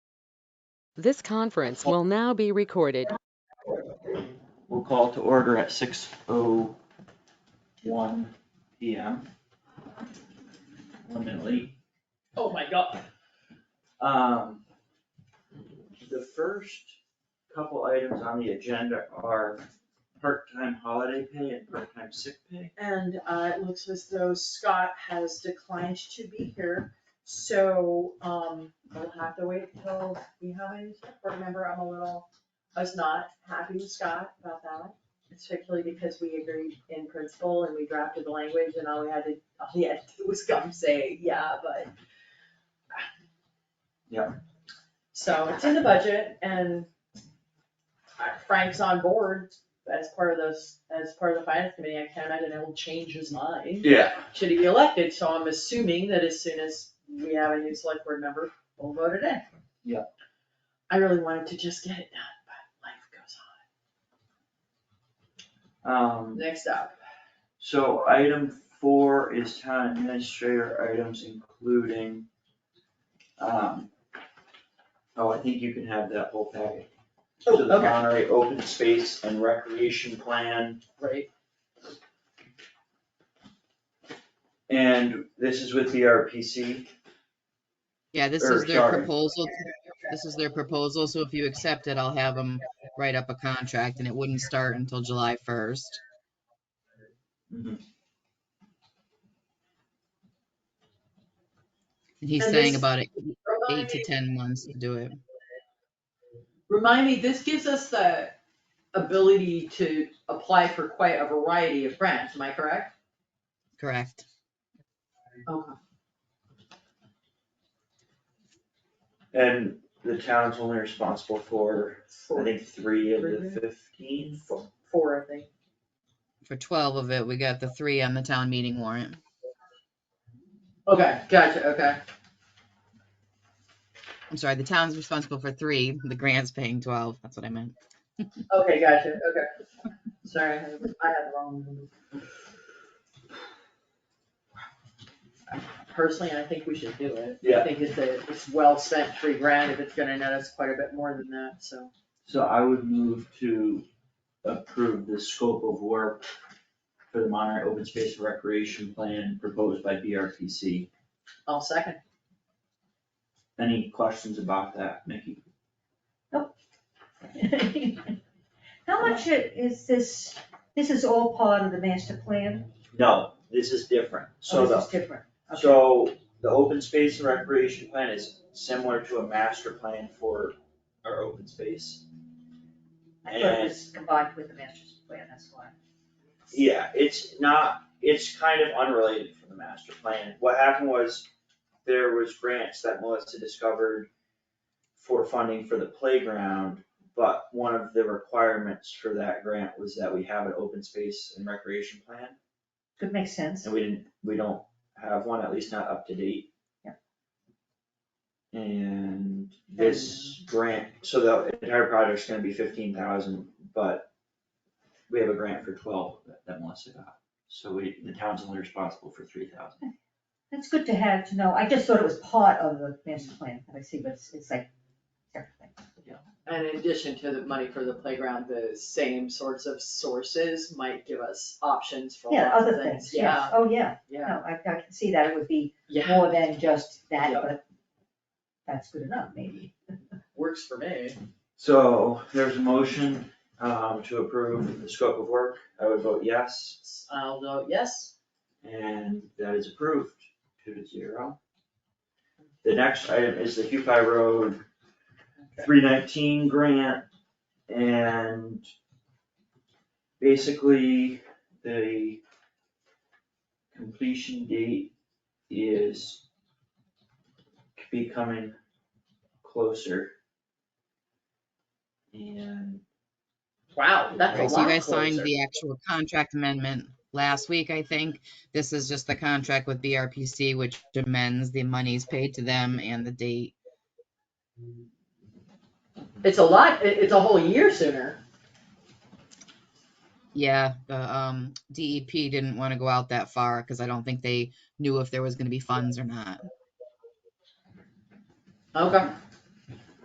This conference will now be recorded. We'll call to order at six oh one P M. One minute late. Oh, my God. Um, the first couple items on the agenda are part-time holiday pay and part-time sick pay. And uh, it looks as though Scott has declined to be here, so um, we'll have to wait till we have a select board member. I'm a little, I was not happy with Scott about that, especially because we agreed in principle and we drafted the language and all we had to, all he had to do was come say, yeah, but. Yeah. So it's in the budget and Frank's on board as part of those, as part of the finance committee, I can't imagine he'll change his mind Yeah. should he be elected, so I'm assuming that as soon as we have a new select board member, we'll vote it in. Yeah. I really wanted to just get it done, but life goes on. Um, Next up, so item four is town administrator items including, um, oh, I think you can have that whole package. oh, to the okay, Monterey Open Space and Recreation Plan. right, And this is with the RPC. Yeah, this Or, is their sorry. proposal. This is their proposal, so if you accept it, I'll have them write up a contract and it wouldn't start until July first. Mm-hmm. And he's And saying this- about eight remind eight to me, ten months to do it. remind me, this gives us the ability to apply for quite a variety of grants, am I correct? Correct. Okay. And the town's only responsible for, I think, three of the fifteen. Four, I think. For twelve of it, we got the three on the town meeting warrant. Okay, gotcha, okay, I'm sorry, the town's responsible for three, the grant's paying twelve. That's what I meant. okay, gotcha, okay. Sorry, I had I had the wrong number. personally, I think we should do it. Yeah. I think it's a, it's well spent three grand if it's gonna net us quite a bit more than that, so. So I would move to approve the scope of work for the Monterey Open Space and Recreation Plan proposed by BRPC. I'll second. Any questions about that, Mickey? How much i- is this, this is all part of the master plan? No, this is different. Oh, So the This is different. Okay. So the open space and recreation plan is similar to a master plan for our open space. I thought it was combined with the master plan, that's why. Yeah, it's not, it's kind of unrelated from the master plan. What happened was there was grants that Melissa discovered for funding for the playground, but one of the requirements for that grant was that we have an open space and recreation plan. Could make sense. And we didn't, we don't have one, at least not up to date. Yeah. And this grant, so the entire project's gonna be fifteen thousand, but we have a grant for twelve that- that Melissa got. So we, the town's only responsible for three thousand. That's good to have, to know. I just thought it was part of the master plan, but I see, but it's, it's like everything. And in addition to the money for the playground, the same sorts of sources might give us options for Yeah, lots of other things, yes. Oh, yeah. Yeah, No, I, I can see that it would be yeah, yeah, more than just that, Yeah. but that's good enough, maybe. works for me. So there's a motion, um, to approve the scope of work. I would vote yes, I'll vote yes. and that is approved, two to zero. The next item is the Hupai Road three nineteen grant and basically the completion date is becoming closer. And Wow, that's a Right, so you lot guys signed closer. the actual contract amendment last week, I think. This is just the contract with BRPC, which amends the monies paid to them and the date. It's a lot, it, it's a whole year sooner. Yeah, the um DEP didn't want to go out that far because I don't think they knew if there was going to be funds or not. Okay.